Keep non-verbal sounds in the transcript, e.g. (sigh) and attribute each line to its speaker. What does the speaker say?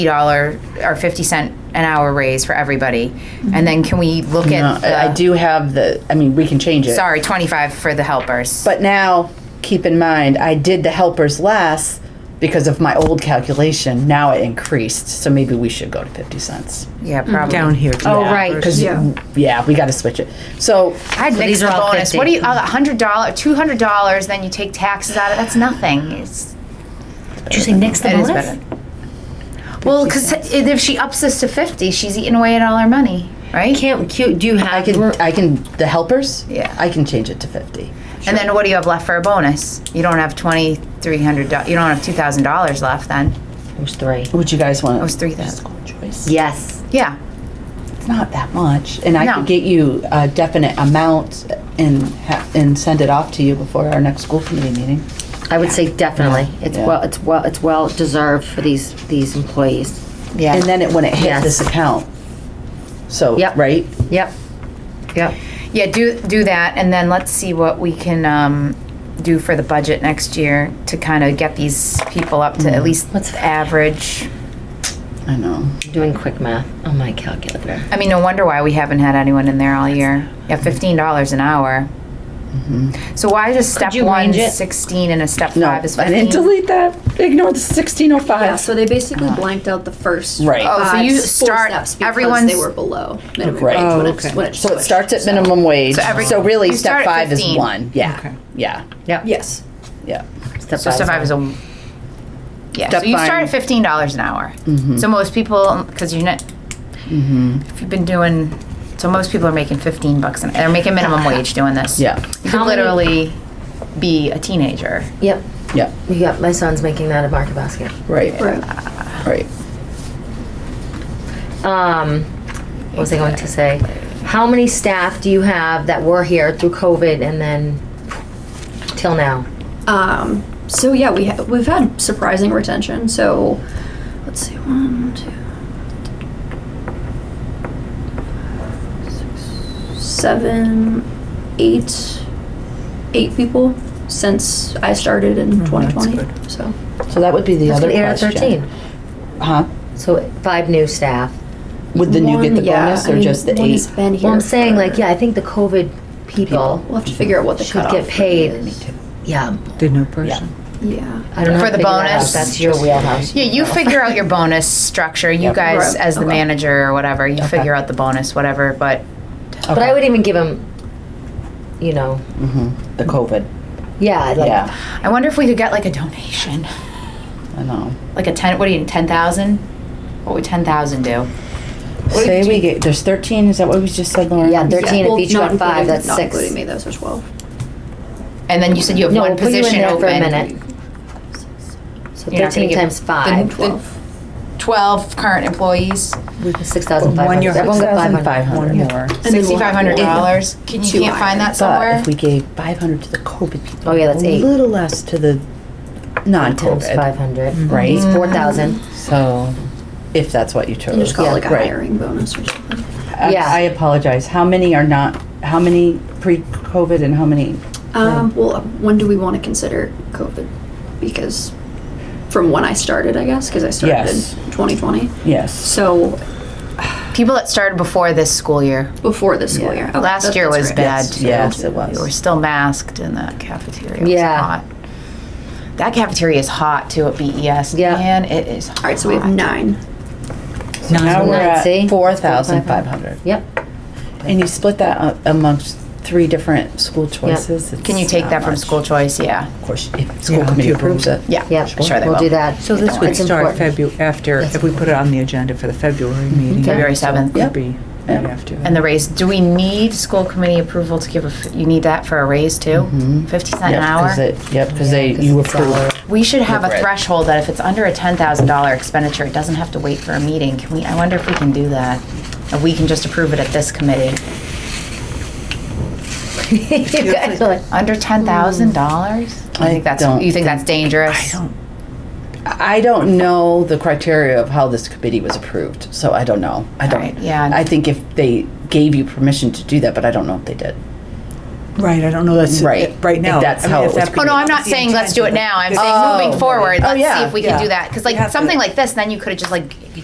Speaker 1: dollar or fifty cent an hour raise for everybody, and then can we look
Speaker 2: No,
Speaker 1: at?
Speaker 2: uh, I I
Speaker 1: the-
Speaker 2: do have the, I mean, we can change it.
Speaker 1: Sorry, twenty-five for the helpers.
Speaker 2: But now, keep in mind, I did the helpers less because of my old calculation. Now it increased, so maybe we should go to fifty cents.
Speaker 1: Yeah, probably.
Speaker 3: down here.
Speaker 1: Oh,
Speaker 2: Yeah,
Speaker 1: right.
Speaker 2: Cause,
Speaker 3: Yeah.
Speaker 2: you- yeah, we gotta switch it. So,
Speaker 1: I'd mix
Speaker 3: these
Speaker 1: the
Speaker 3: are all
Speaker 1: bonus.
Speaker 3: 50.
Speaker 1: What do you, a hundred dollar, two hundred dollars, then you take taxes out of, that's nothing. It's,
Speaker 3: Did you say next the
Speaker 1: it is
Speaker 3: bonus?
Speaker 1: better. Well, cause if she ups this to fifty, she's eating away at all our money, right?
Speaker 3: Can't, cute, do you
Speaker 2: I
Speaker 3: have,
Speaker 2: can, I can, the helpers?
Speaker 1: Yeah.
Speaker 2: I can change it to fifty.
Speaker 1: And then what do you have left for a bonus? You don't have twenty-three hundred, you don't have two thousand dollars left then.
Speaker 3: who's three?
Speaker 2: Would you guys wanna?
Speaker 1: It was three thousand.
Speaker 2: Choice.
Speaker 3: Yes.
Speaker 1: Yeah,
Speaker 2: It's not that much, and I
Speaker 1: No.
Speaker 2: could get you a definite amount and ha- and send it off to you before our next school committee meeting.
Speaker 3: I would say definitely. It's
Speaker 2: Yeah.
Speaker 3: well, it's well, it's well deserved for these, these employees.
Speaker 1: yeah.
Speaker 2: And then it, when it hit
Speaker 3: Yes.
Speaker 2: this account. So,
Speaker 3: Yep.
Speaker 2: right?
Speaker 3: Yep. Yep.
Speaker 1: Yeah, do, do that, and then let's see what we can, um, do for the budget next year to kind of get these people up to
Speaker 2: Mm-hmm.
Speaker 1: at least
Speaker 3: Let's-
Speaker 1: average.
Speaker 2: I know.
Speaker 3: Doing quick math on my calculator.
Speaker 1: I mean, no wonder why we haven't had anyone in there all year. Yeah, fifteen dollars an hour.
Speaker 2: Mm-hmm.
Speaker 1: So why does step
Speaker 3: you
Speaker 1: one
Speaker 3: range it?
Speaker 1: sixteen and a step
Speaker 2: No,
Speaker 1: five is
Speaker 2: I didn't
Speaker 1: fifteen?
Speaker 2: delete that. Ignore the sixteen oh
Speaker 4: Yeah,
Speaker 2: five.
Speaker 4: so they basically blanked out the first.
Speaker 2: Uh-huh. Right.
Speaker 1: Oh, so
Speaker 4: five
Speaker 1: you
Speaker 4: full
Speaker 1: start-
Speaker 4: steps because
Speaker 1: everyone's-
Speaker 4: They were below minimum
Speaker 2: Right.
Speaker 4: wage when
Speaker 2: Oh,
Speaker 4: it, when it
Speaker 2: So it
Speaker 4: switched,
Speaker 2: starts at
Speaker 4: so-
Speaker 2: minimum wage,
Speaker 1: every-
Speaker 2: so really
Speaker 1: you start
Speaker 2: step
Speaker 1: at
Speaker 2: five is
Speaker 1: 15.
Speaker 2: one, yeah, yeah,
Speaker 3: Yep.
Speaker 4: Yes.
Speaker 2: yeah.
Speaker 3: Step
Speaker 1: So step five is a, yeah, so
Speaker 2: Step
Speaker 1: you start
Speaker 2: five. Mm-hmm.
Speaker 1: at fifteen dollars an hour. So most people, because you're not, if you've been doing, so most people are making fifteen bucks, an they're making minimum wage doing this.
Speaker 2: Yeah.
Speaker 1: You
Speaker 3: How
Speaker 1: could
Speaker 3: many-
Speaker 1: literally be a teenager.
Speaker 3: Yep.
Speaker 2: Yeah,
Speaker 3: Yep, my son's making that a market basket.
Speaker 2: right,
Speaker 4: Right.
Speaker 2: right.
Speaker 3: Um, what was I going to say? How many staff do you have that were here through COVID and then till now?
Speaker 4: Um, so yeah, we ha- we've had surprising retention. So let's see, one, two, six, seven, eight, eight people since I started
Speaker 2: Hmm,
Speaker 4: in 2020. So
Speaker 2: So that would be the
Speaker 3: That's
Speaker 2: other
Speaker 3: gonna add up
Speaker 2: question.
Speaker 3: thirteen.
Speaker 2: Huh?
Speaker 3: So five new staff.
Speaker 2: Would then you get
Speaker 4: One,
Speaker 2: the
Speaker 4: yeah,
Speaker 2: bonus
Speaker 4: I
Speaker 2: or
Speaker 4: mean,
Speaker 2: just the
Speaker 4: one has
Speaker 2: eight?
Speaker 4: been here
Speaker 3: Well, I'm saying like,
Speaker 4: for-
Speaker 3: yeah, I think the COVID people
Speaker 4: We'll have to figure out what the
Speaker 3: should
Speaker 4: cutoff
Speaker 3: get
Speaker 4: is.
Speaker 3: paid. Yeah,
Speaker 5: The new person.
Speaker 4: Yeah.
Speaker 3: I don't know.
Speaker 1: For
Speaker 3: how
Speaker 1: the
Speaker 3: to figure that out.
Speaker 1: bonus?
Speaker 3: That's your wheelhouse.
Speaker 1: Yeah, you figure (laughs) out your bonus structure. You guys,
Speaker 4: Right.
Speaker 1: as the
Speaker 4: Okay.
Speaker 1: manager or whatever, you figure out the bonus, whatever. But
Speaker 3: But I would even give them, you know,
Speaker 2: Mhm. The COVID,
Speaker 3: yeah, like,
Speaker 2: yeah,
Speaker 1: I wonder if we could get like a donation,
Speaker 2: I know.
Speaker 1: like a ten. What do you need? Ten thousand? What would ten thousand do? What
Speaker 2: Say
Speaker 1: do
Speaker 2: we get, there's thirteen, is that what we just said, Lauren?
Speaker 3: Yeah, they're- 13 if each
Speaker 4: not
Speaker 3: got five,
Speaker 4: including-
Speaker 3: that's
Speaker 4: not
Speaker 3: six.
Speaker 4: including me, those are 12.
Speaker 1: And then you said you have
Speaker 3: No,
Speaker 1: one
Speaker 3: we'll put you in
Speaker 1: position
Speaker 3: there
Speaker 1: open.
Speaker 3: for a minute. So
Speaker 1: You're not gonna
Speaker 3: thirteen
Speaker 1: give
Speaker 3: times
Speaker 4: Then
Speaker 3: five,
Speaker 4: 12.
Speaker 1: Twelve current employees,
Speaker 3: six thousand five
Speaker 5: One
Speaker 3: hundred.
Speaker 5: year,
Speaker 3: Everyone got five hundred.
Speaker 2: Five hundred more.
Speaker 4: And then we'll
Speaker 1: sixty-five hundred dollars. Can you
Speaker 4: Two
Speaker 1: can't find that
Speaker 2: But
Speaker 1: somewhere?
Speaker 2: if we gave five hundred to the COVID people.
Speaker 3: Oh, yeah, that's eight.
Speaker 2: A little less to the
Speaker 3: Times
Speaker 2: non-COVID,
Speaker 3: five hundred.
Speaker 2: Right.
Speaker 3: It's four thousand.
Speaker 1: Mm-hmm.
Speaker 2: so, if that's what you chose.
Speaker 4: And just call it like a
Speaker 2: Right.
Speaker 4: hiring bonus or something.
Speaker 2: I-
Speaker 3: Yeah.
Speaker 2: I apologize, how many are not, how many pre-COVID and how many?
Speaker 4: Um, well, when do we want to consider COVID? Because from when I started, I guess, because I started in
Speaker 2: Yes.
Speaker 4: 2020.
Speaker 2: Yes.
Speaker 4: So
Speaker 1: People that started before this school year.
Speaker 4: before the school year. Okay,
Speaker 1: Last
Speaker 4: that-
Speaker 1: year
Speaker 4: that's
Speaker 1: was
Speaker 4: right.
Speaker 1: bad
Speaker 2: Yes,
Speaker 1: too.
Speaker 2: yes, it
Speaker 1: We
Speaker 2: was.
Speaker 1: were still masked in the cafeteria. was
Speaker 3: Yeah.
Speaker 1: hot. That cafeteria is hot too at BES.
Speaker 3: Yeah.
Speaker 1: Man, it is
Speaker 4: All right, so we have
Speaker 1: hot.
Speaker 4: nine.
Speaker 2: Now we're
Speaker 3: Nine, see?
Speaker 2: at four thousand five hundred.
Speaker 3: Yep.
Speaker 2: And you split that up amongst three different school choices.
Speaker 1: Can you
Speaker 2: it's
Speaker 1: take
Speaker 2: not
Speaker 1: that from
Speaker 2: much.
Speaker 1: school choice? Yeah.
Speaker 2: Of course, if school
Speaker 5: Yeah, if
Speaker 2: committee
Speaker 5: you
Speaker 2: approves it.
Speaker 5: approve
Speaker 1: Yeah.
Speaker 3: Yep.
Speaker 1: Sure, they
Speaker 3: We'll
Speaker 1: will.
Speaker 3: do that.
Speaker 5: So this would
Speaker 3: It's
Speaker 5: start
Speaker 3: important.
Speaker 5: February, after, if we put it on the agenda for the February meeting.
Speaker 1: Mm-hmm. February
Speaker 5: so it
Speaker 1: 7th.
Speaker 2: Yep.
Speaker 5: Could be right
Speaker 2: Yep.
Speaker 5: after.
Speaker 1: And the raise, do we need school committee approval to give a, f- you need that for a raise too? Fifty cent an
Speaker 2: Yep, 'cause
Speaker 1: hour?
Speaker 2: it- Yep, because
Speaker 3: Yeah,
Speaker 2: they,
Speaker 3: 'cause
Speaker 2: you
Speaker 3: it's
Speaker 2: approve.
Speaker 3: solid.
Speaker 1: We should have a
Speaker 2: Right.
Speaker 1: threshold that if it's under a ten thousand dollar expenditure, it doesn't have to wait for a meeting. Can we, I wonder if we can do that? And we can just approve it at this committee.
Speaker 3: You guys are like,
Speaker 1: (laughs) Under ten thousand dollars? I
Speaker 2: I
Speaker 1: think that's,
Speaker 2: don't
Speaker 1: you think that's dangerous?
Speaker 2: I don't know the criteria of how this committee was approved, so I don't know. I
Speaker 1: Right,
Speaker 2: don't.
Speaker 1: yeah.
Speaker 2: I think if they gave you permission to do that, but I don't know if they did.
Speaker 5: Right, I don't know that's,
Speaker 2: Right,
Speaker 5: right now.
Speaker 2: if that's
Speaker 5: I mean,
Speaker 2: how
Speaker 5: if
Speaker 2: it was
Speaker 5: that-
Speaker 1: Oh no, I'm not
Speaker 5: the
Speaker 1: saying let's do it
Speaker 5: intention,
Speaker 1: now. I'm
Speaker 5: but-
Speaker 2: Oh,
Speaker 1: saying moving forward,
Speaker 2: right. Oh,
Speaker 1: let's
Speaker 2: yeah,
Speaker 1: see if we can
Speaker 5: yeah.
Speaker 1: do that. Because
Speaker 5: You have
Speaker 1: like
Speaker 5: to-
Speaker 1: something like this, then you could have just like